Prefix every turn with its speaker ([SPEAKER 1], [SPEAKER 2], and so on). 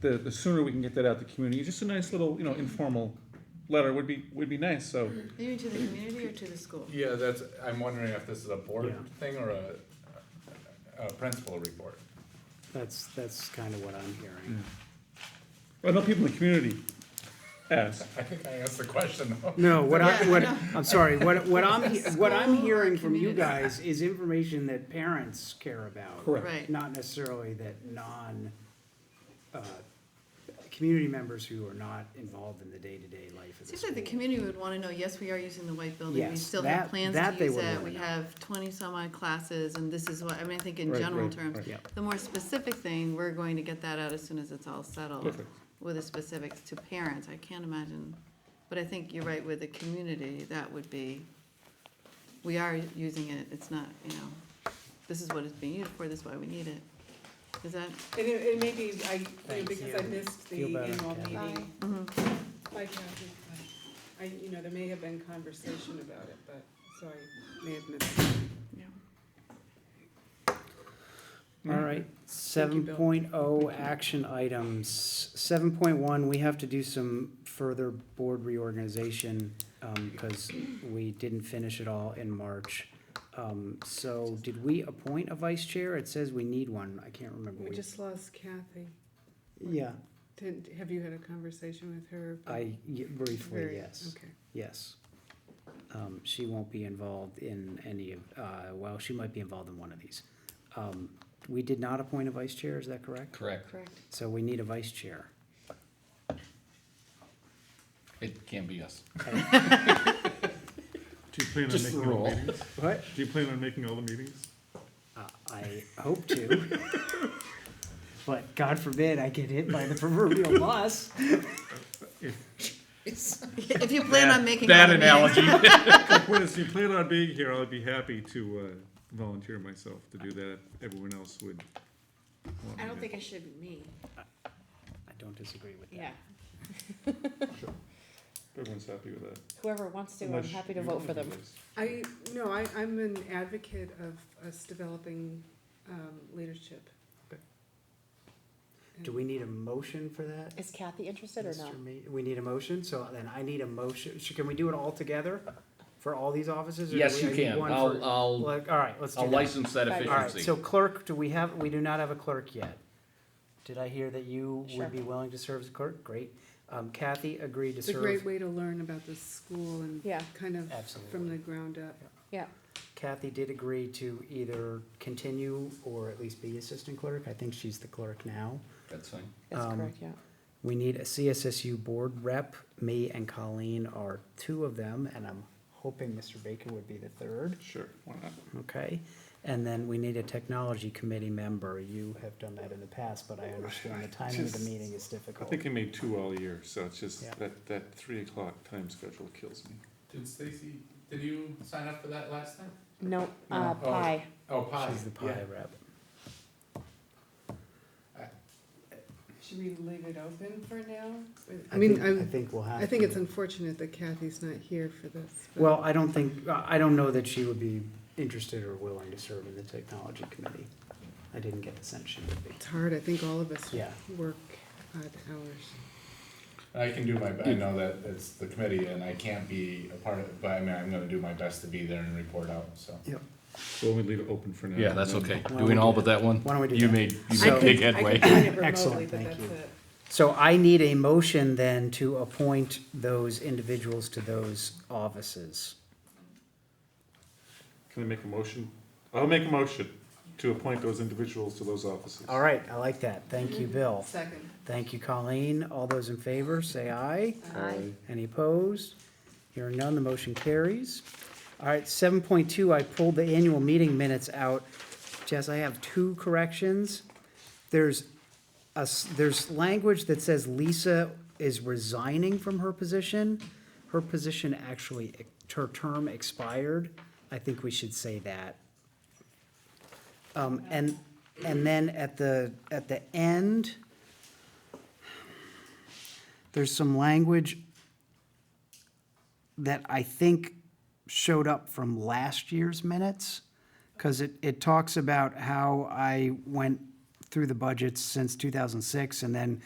[SPEAKER 1] the, the sooner we can get that out to the community, just a nice little, you know, informal letter would be, would be nice, so.
[SPEAKER 2] Maybe to the community or to the school?
[SPEAKER 3] Yeah, that's, I'm wondering if this is a board
[SPEAKER 4] Yeah.
[SPEAKER 3] thing or a, a principal report.
[SPEAKER 4] That's, that's kind of what I'm hearing.
[SPEAKER 1] I know people in the community ask.
[SPEAKER 3] I think I asked the question though.
[SPEAKER 4] No, what I,
[SPEAKER 2] Yeah,
[SPEAKER 4] what,
[SPEAKER 2] no.
[SPEAKER 4] I'm sorry, what, what I'm, he- what I'm
[SPEAKER 2] School or
[SPEAKER 4] hearing from you
[SPEAKER 2] community.
[SPEAKER 4] guys is information that parents care about.
[SPEAKER 1] Correct.
[SPEAKER 2] Right.
[SPEAKER 4] Not necessarily that non, uh, community members who are not involved in the day-to-day life of the
[SPEAKER 2] Seems like the
[SPEAKER 4] school.
[SPEAKER 2] community would wanna know, yes, we are using the white building, we
[SPEAKER 4] Yes,
[SPEAKER 2] still
[SPEAKER 4] that-
[SPEAKER 2] have plans
[SPEAKER 4] that
[SPEAKER 2] to
[SPEAKER 4] they
[SPEAKER 2] use
[SPEAKER 4] would
[SPEAKER 2] it,
[SPEAKER 4] wanna
[SPEAKER 2] we
[SPEAKER 4] know.
[SPEAKER 2] have twenty some odd classes, and this is what, I mean, I think in
[SPEAKER 1] Right,
[SPEAKER 2] general
[SPEAKER 1] right,
[SPEAKER 2] terms.
[SPEAKER 1] right.
[SPEAKER 4] Yeah.
[SPEAKER 2] The more specific thing, we're going to get that out as soon as it's all settled,
[SPEAKER 1] Perfect.
[SPEAKER 2] with the specifics to parents, I can't imagine. But I think you're right, with the community, that would be, we are using it, it's not, you know, this is what it's being used for, this is why we need it. Is that,
[SPEAKER 5] And it, it may be, I, you know,
[SPEAKER 4] Thanks,
[SPEAKER 5] because
[SPEAKER 4] yeah.
[SPEAKER 5] I missed the
[SPEAKER 4] Feel better,
[SPEAKER 5] annual
[SPEAKER 4] Kathy.
[SPEAKER 5] meeting.
[SPEAKER 2] mhm.
[SPEAKER 5] Bye, Kathy. Bye. I, you know, there may have been conversation about it, but, so I may have missed it.
[SPEAKER 2] yeah.
[SPEAKER 4] All right, seven
[SPEAKER 5] Mm-hmm.
[SPEAKER 4] oh
[SPEAKER 5] Thank you,
[SPEAKER 4] action items. Seven point one, we have to do some further board reorganization, um, because we didn't finish it all in March. Um, so did we appoint a vice chair? It says we need one, I can't remember.
[SPEAKER 5] We
[SPEAKER 4] We-
[SPEAKER 5] just lost Kathy.
[SPEAKER 4] Yeah,
[SPEAKER 5] Didn't, have you had a conversation with her?
[SPEAKER 4] I, y- briefly,
[SPEAKER 5] Very-
[SPEAKER 4] yes,
[SPEAKER 5] Okay.
[SPEAKER 4] yes. Um, she won't be involved in any of, uh, well, she might be involved in one of these. Um, we did not appoint a vice chair, is that correct?
[SPEAKER 6] Correct.
[SPEAKER 2] Correct.
[SPEAKER 4] So we need a vice chair.
[SPEAKER 6] It can't be us.
[SPEAKER 7] Do you plan on
[SPEAKER 6] Just the
[SPEAKER 7] making all
[SPEAKER 6] rule.
[SPEAKER 7] the meetings?
[SPEAKER 4] What?
[SPEAKER 7] Do you plan on making all the meetings?
[SPEAKER 4] Uh, I hope to. But God forbid I get hit by the proverbial bus.
[SPEAKER 2] If you plan on making.
[SPEAKER 6] That
[SPEAKER 2] other meetings-
[SPEAKER 6] analogy.
[SPEAKER 7] Whereas you plan on being here, I'd be happy to uh, volunteer myself to do that. if Everyone else would. want me
[SPEAKER 8] I don't
[SPEAKER 7] to.
[SPEAKER 8] think it should be me,
[SPEAKER 4] I don't disagree with
[SPEAKER 8] yeah.
[SPEAKER 4] that.
[SPEAKER 1] Everyone's happy with that.
[SPEAKER 8] Whoever wants to, I'm
[SPEAKER 1] Unless
[SPEAKER 8] happy to
[SPEAKER 1] you
[SPEAKER 8] vote
[SPEAKER 1] want
[SPEAKER 8] for them.
[SPEAKER 1] this.
[SPEAKER 5] I, no, I, I'm an advocate of us developing, um, leadership.
[SPEAKER 4] Do we need a motion for that?
[SPEAKER 8] Is Kathy interested or not?
[SPEAKER 4] Mr. Ma- We need a motion, so then I need a motion. Sh- Can we do it all together for all these offices? or do
[SPEAKER 6] Yes,
[SPEAKER 4] we-
[SPEAKER 6] you
[SPEAKER 4] I need
[SPEAKER 6] can.
[SPEAKER 4] one
[SPEAKER 6] I'll,
[SPEAKER 4] for-
[SPEAKER 6] I'll,
[SPEAKER 4] Like, all right, let's do
[SPEAKER 6] I'll
[SPEAKER 4] that.
[SPEAKER 6] license that
[SPEAKER 8] Fine.
[SPEAKER 4] All right,
[SPEAKER 6] efficiency.
[SPEAKER 4] so clerk, do we have, we do not have a clerk yet. Did I hear that you
[SPEAKER 8] Sure.
[SPEAKER 4] would be willing to serve as clerk? Great. Um, Kathy agreed to
[SPEAKER 5] It's a
[SPEAKER 4] serve.
[SPEAKER 5] great way to learn about the school and
[SPEAKER 8] Yeah.
[SPEAKER 5] kind of from
[SPEAKER 4] Absolutely.
[SPEAKER 5] the ground up.
[SPEAKER 8] Yeah,
[SPEAKER 4] Kathy did agree to either continue or at least be assistant clerk. I think she's the clerk now.
[SPEAKER 6] That's fine.
[SPEAKER 8] that's
[SPEAKER 4] Um,
[SPEAKER 8] correct, yeah.
[SPEAKER 4] We need a CSSU board rep. Me and Colleen are two of them, and I'm hoping Mr. Baker would be the third.
[SPEAKER 1] Sure, why not?
[SPEAKER 4] Okay. And then we need a technology committee member. You have done that in the past, but I understand the timing of the meeting is
[SPEAKER 1] I
[SPEAKER 4] difficult.
[SPEAKER 1] think I made two all year, so it's just,
[SPEAKER 4] Yeah.
[SPEAKER 1] that, that three o'clock time schedule kills me.
[SPEAKER 3] Did Stacy, did you sign up for that last time?
[SPEAKER 8] No, uh,
[SPEAKER 3] No. Oh.
[SPEAKER 8] pie.
[SPEAKER 3] Oh, pie.
[SPEAKER 4] She's the
[SPEAKER 3] Yeah.
[SPEAKER 4] pie rep.
[SPEAKER 5] Should we leave it open for now? I
[SPEAKER 4] I
[SPEAKER 5] mean,
[SPEAKER 4] think- I
[SPEAKER 5] I,
[SPEAKER 4] think we'll have
[SPEAKER 5] I think
[SPEAKER 4] to.
[SPEAKER 5] it's unfortunate that Kathy's not here for this. but-
[SPEAKER 4] Well, I don't think, I don't know that she would be interested or willing to serve in the technology committee. I didn't get the sense she would be.
[SPEAKER 5] It's hard, I think all of us
[SPEAKER 4] Yeah.
[SPEAKER 5] work odd hours.
[SPEAKER 3] I can do my, be- I know that it's the committee and I can't be a part of it, but I mean, I'm gonna do my best to be there and report out, so.
[SPEAKER 4] Yep.
[SPEAKER 1] We'll only leave it open for now.
[SPEAKER 6] Yeah, that's
[SPEAKER 1] and then-
[SPEAKER 6] okay.
[SPEAKER 4] Why don't we
[SPEAKER 6] Doing all but that one.
[SPEAKER 4] Why don't we do
[SPEAKER 6] You
[SPEAKER 4] that?
[SPEAKER 6] made, you
[SPEAKER 4] So-
[SPEAKER 6] made big
[SPEAKER 5] I
[SPEAKER 6] headway.
[SPEAKER 5] can find it remotely,
[SPEAKER 4] Excellent,
[SPEAKER 5] but
[SPEAKER 4] thank
[SPEAKER 5] that's
[SPEAKER 4] you.
[SPEAKER 5] it.
[SPEAKER 4] So I need a motion then to appoint those individuals to those offices.
[SPEAKER 1] Can I make a motion? I'll make a motion to appoint those individuals to those offices.
[SPEAKER 4] All right, I like that. Thank you, Bill.
[SPEAKER 5] Second.
[SPEAKER 4] Thank you, Colleen. All those in favor, say aye. Any opposed? Hearing none, the motion carries. All right, seven point two, I pulled the annual meeting minutes out. Jess, I have two corrections. There's a s there's language that says Lisa is resigning from her position. Her position actually, her term expired. I think we should say that. Um, and, and then at the, at the end, there's some language that I think showed up from last year's minutes, because it, it talks about how I went through the budgets since 2006 and then